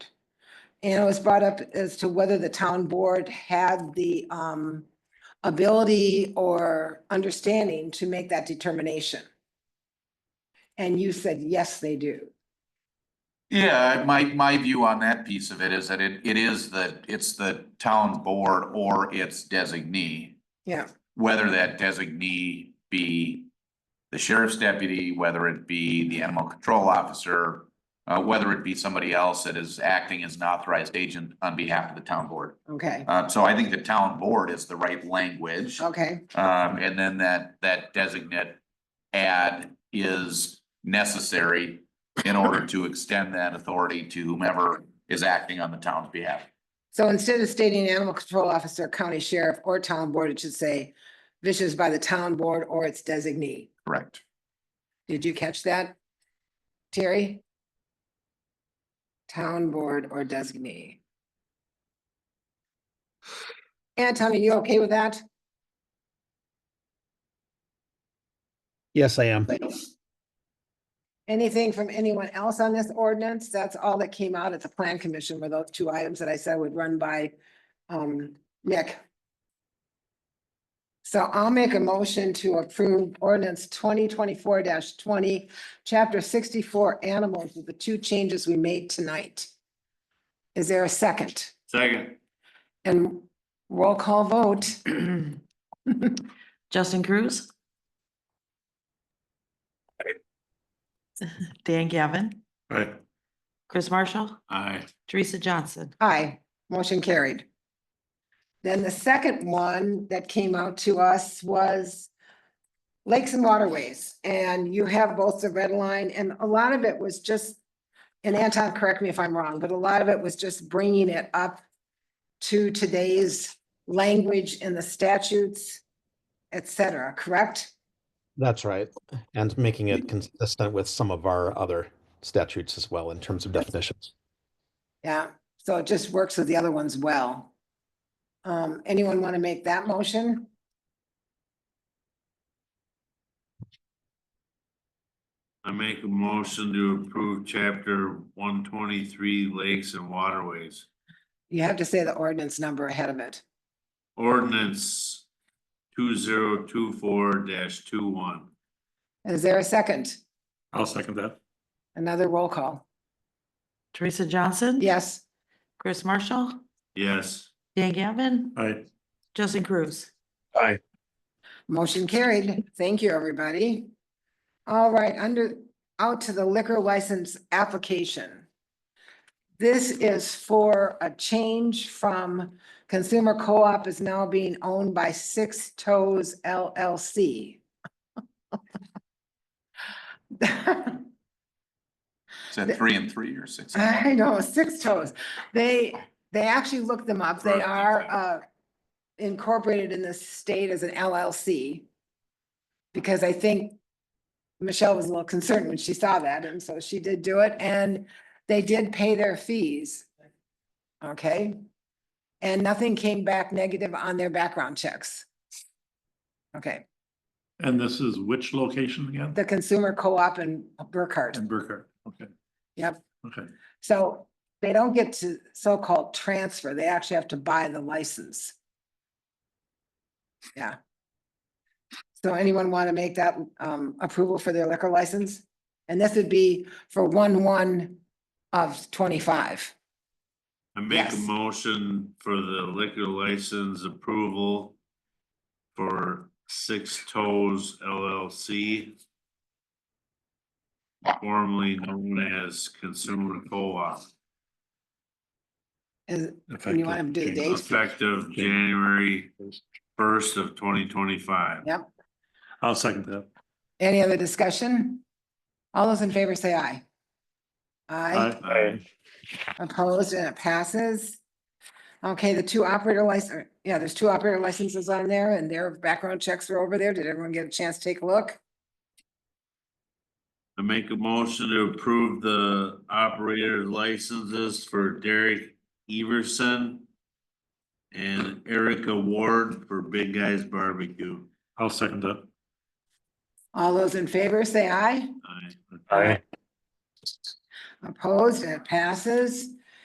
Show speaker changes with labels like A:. A: And it was brought up as to whether the town board had the um ability or understanding to make that determination. And you said, yes, they do.
B: Yeah, my, my view on that piece of it is that it, it is the, it's the town board or its designee.
A: Yeah.
B: Whether that designee be the sheriff's deputy, whether it be the animal control officer, uh, whether it be somebody else that is acting as an authorized agent on behalf of the town board.
A: Okay,
B: Uh, so I think the town board is the right language.
A: okay,
B: Um, and then that, that designate ad is necessary in order to extend that authority to whomever is acting on the town's behalf.
A: so instead of stating animal control officer, county sheriff, or town board, it should say vicious by the town board or its designee.
B: Correct.
A: Did you catch that? Terry? Town board or designee? And Tommy, you okay with that?
C: Yes, I am.
A: Anything from anyone else on this ordinance? That's all that came out at the plan commission were those two items that I said would run by um Nick. So I'll make a motion to approve ordinance twenty twenty-four twenty, chapter sixty-four animals with the two changes we made tonight. Is there a second?
D: Second.
A: And roll call vote.
E: Justin Cruz. Dan Gavin,
D: Aye.
E: Chris Marshall,
D: Aye.
E: Teresa Johnson.
A: Aye, motion carried. Then the second one that came out to us was lakes and waterways, and you have both the red line, and a lot of it was just, and Anton, correct me if I'm wrong, but a lot of it was just bringing it up to today's language in the statutes, et cetera, correct?
C: That's right. And making it consistent with some of our other statutes as well in terms of definitions.
A: Yeah, so it just works with the other ones well. Um, anyone want to make that motion?
D: I make a motion to approve chapter one twenty-three lakes and waterways.
A: You have to say the ordinance number ahead of it.
D: Ordinance two zero two four dash two one.
A: Is there a second?
D: I'll second that.
A: Another roll call.
E: Teresa Johnson.
A: Yes,
E: Chris Marshall,
D: Yes.
E: Dan Gavin,
D: Aye.
E: Justin Cruz.
A: motion carried. Thank you, everybody. All right, under, out to the liquor license application. This is for a change from Consumer Co-op is now being owned by Six Toes LLC.
B: Is that three and three or six? and one?
A: I know, six toes. They, they actually looked them up. They
D: Right,
A: are
D: exactly.
A: uh incorporated in the state as an LLC. Because I think Michelle was a little concerned when she saw that, and so she did do it, and they did pay their fees. Okay? And nothing came back negative on their background checks. Okay,
F: And this is which location again?
A: the consumer co-op in Burkhardt.
F: In Burkhardt, okay.
A: Yep.
F: Okay,
A: So they don't get to so-called transfer, they actually have to buy the license. Yeah. So anyone want to make that um approval for their liquor license? And this would be for one one of twenty-five.
D: I make a
A: Yes.
D: motion for the liquor license approval for Six Toes LLC. Formerly known as Consumer Co-op,
A: Is,
F: effective.
A: and you want to do the
F: January
A: date?
D: effective January first of twenty twenty-five.
A: Yep.
F: I'll second that.
A: Any other discussion? All those in favor say aye. Aye. Opposed and it passes. Okay, the two operator license, yeah, there's two operator licenses on there and their background checks are over there. Did everyone get a chance to take a look?
D: I make a motion to approve the operator licenses for Derek Everson and Erica Ward for Big Guys Barbecue.
F: I'll second that.
A: All those in favor, say aye.
D: Aye.
A: Opposed and it passes.